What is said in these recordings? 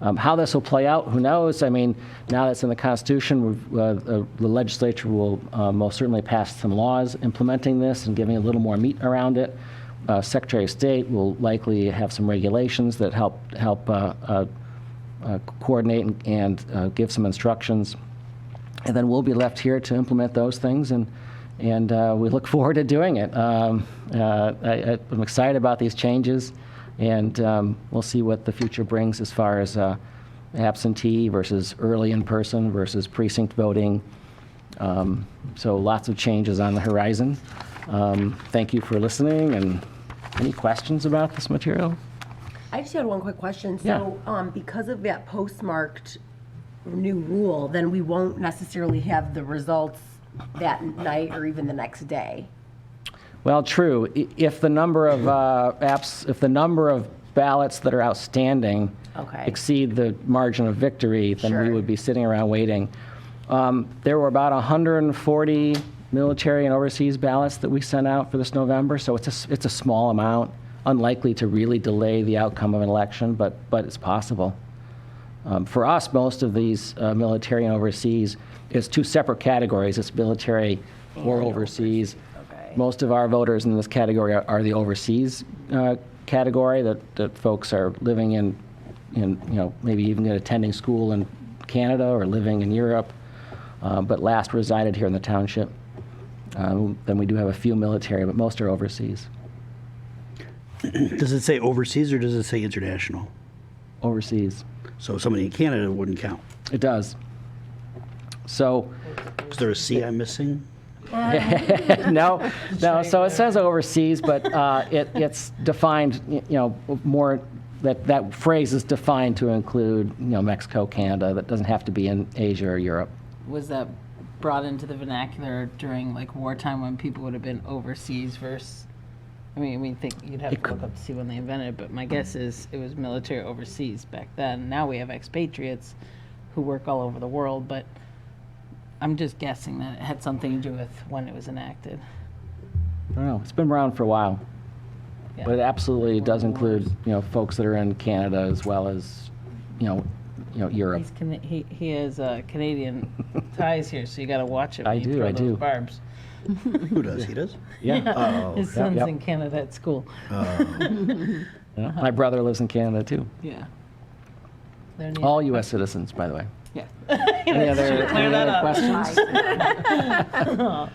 Um, How this will play out, who knows? I mean, now that's in the Constitution, we've, uh, the the legislature will uh, most certainly pass some laws implementing this and giving a little more meat around it. Uh, Secretary of State will likely have some regulations that help, help uh, uh, uh, coordinate and- and uh, give some instructions. And then we'll be left here to implement those things, and, and uh, we look forward to doing it. Um, uh, I, I'm excited about these changes, and um, we'll see what the future brings as far as uh, absentee versus early in person versus precinct voting. Um, so lots of changes on the horizon. Um, thank you for listening, and any questions about this material? I just had one quick question. So, um, because of that postmarked new rule, then we won't necessarily have the results that night or even the next day. Well, true. I- If the number of uh, apps, if the number of ballots that are outstanding Okay. exceed the margin of victory, then we Sure. would be sitting around waiting. Um, There were about 140 military and overseas ballots that we sent out for this November, so it's a, s- it's a small amount, unlikely to really delay the outcome of an election, but, but it's possible. Um, For us, most of these uh, military and overseas, it's two separate categories. It's military or overseas. okay. Most of our voters in this category are- are the overseas uh, category, that, that folks are living in, in, you know, maybe even attending school in Canada or living in Europe, uh, but last resided here in the township. Um, Then we do have a few military, but most are overseas. Does it say overseas or does it say international? Overseas. So somebody in Canada wouldn't count. It does. So, Is there a C I'm missing? no, no. So it says overseas, but uh, it, it's defined, y- you know, more, that, that phrase is defined to include, you know, Mexico, Canada. That doesn't have to be in Asia or Europe. was that brought into the vernacular during like wartime when people would have been overseas versus I mean, I mean, think you'd have to look up to see when they invented it, but my guess is it was military overseas back then. Now we have expatriates who work all over the world, but I'm just guessing that it had something to do with when it was enacted. I don't know. It's been around for a while. Yeah. But it absolutely does include, you know, folks that are in Canada as well as, you know, you know, Europe. He's Cana- he, he has uh, Canadian ties here, so you got to watch it. When I you do, throw I those do. Oh, Barbs. Who does? He does? Yeah. His son's yep. in Canada at school. Yeah. My brother lives in Canada too. Yeah. They're neat. All U.S. citizens, by the way. Yeah. Any other, any that other up. questions? Do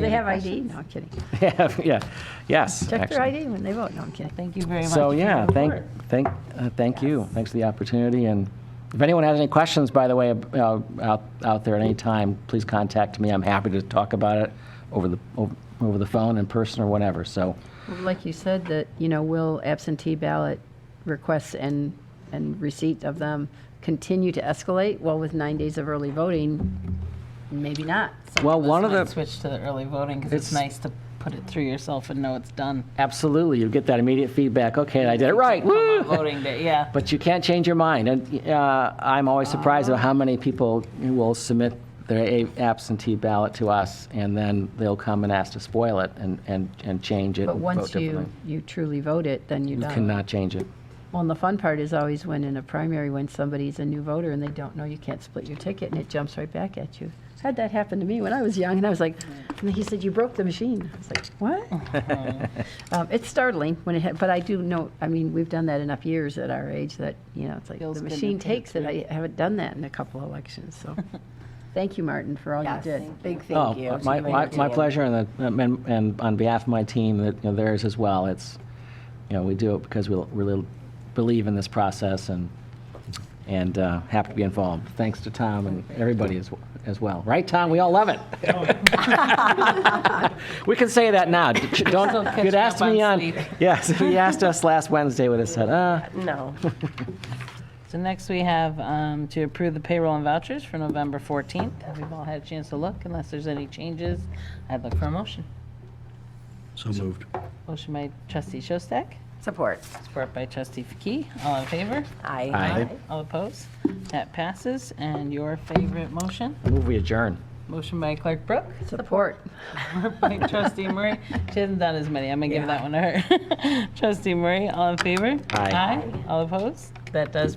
they have ID? No, I'm kidding. yeah, yeah. Yes. Check their actually. ID when they vote. No, I'm kidding. Thank you very much. So for yeah, your thank, report. thank, uh, thank you. Thanks for the opportunity. And if anyone has any questions, by the way, uh, out, out there at any time, please contact me. I'm happy to talk about it over the, over- over the phone, in person, or whatever. So, Well, Like you said, that, you know, will absentee ballot requests and, and receipt of them continue to escalate? Well, with nine days of early voting, maybe not. So- well, Let's one of not the, switch to the early voting because it's, It's- nice to put it through yourself and know it's done. absolutely, you get that immediate feedback. Okay, I did it right. Come Woo! on voting day, yeah. But you can't change your mind. And uh, I'm always surprised at how many people will submit their a- absentee ballot to us, and then they'll come and ask to spoil it and, and, and change it. But and vote once you, differently. you truly vote it, then you're You done. cannot change it. Well, and the fun part is always when in a primary, when somebody's a new voter and they don't know, you can't split your ticket and it jumps right back at you. Had that happen to me when I was young and I was like, and he said, you broke the machine. I was like, what? Um, It's startling when it, ha- but I do know, I mean, we've done that enough years at our age that, you know, it's like, Feels the good to machine put it takes it. I haven't done that in a couple of elections, so. Thank you, Martin, for all you Yes, did. big thank Oh, you. to My, you and my, your my team. pleasure, and, the- and, and on behalf of my team, that, you know, theirs as well. It's, you know, we do it because we really believe in this process and, and uh, happy to be involved. Thanks to Tom and everybody as, as well. Right, Tom? We all love it. We can say that now. still Don't, catching you'd asked up on me on, sleep. yes, if you asked us last Wednesday, we'd have said, uh, No. So next we have um, to approve the payroll and vouchers for November 14th. Have We've all had a chance to look. Unless there's any changes, I'd look for a motion. So moved. Motion by Trustee Shostak, Support. support by Trustee Faki. All in favor? Aye. I All opposed? That passes. And your favorite motion? move we adjourn. Motion by Clerk Brooke. Support. by Trustee Murray. She hasn't done as many. I'm gonna give that one to her. Trustee Murray, all in favor? Aye. All opposed? That does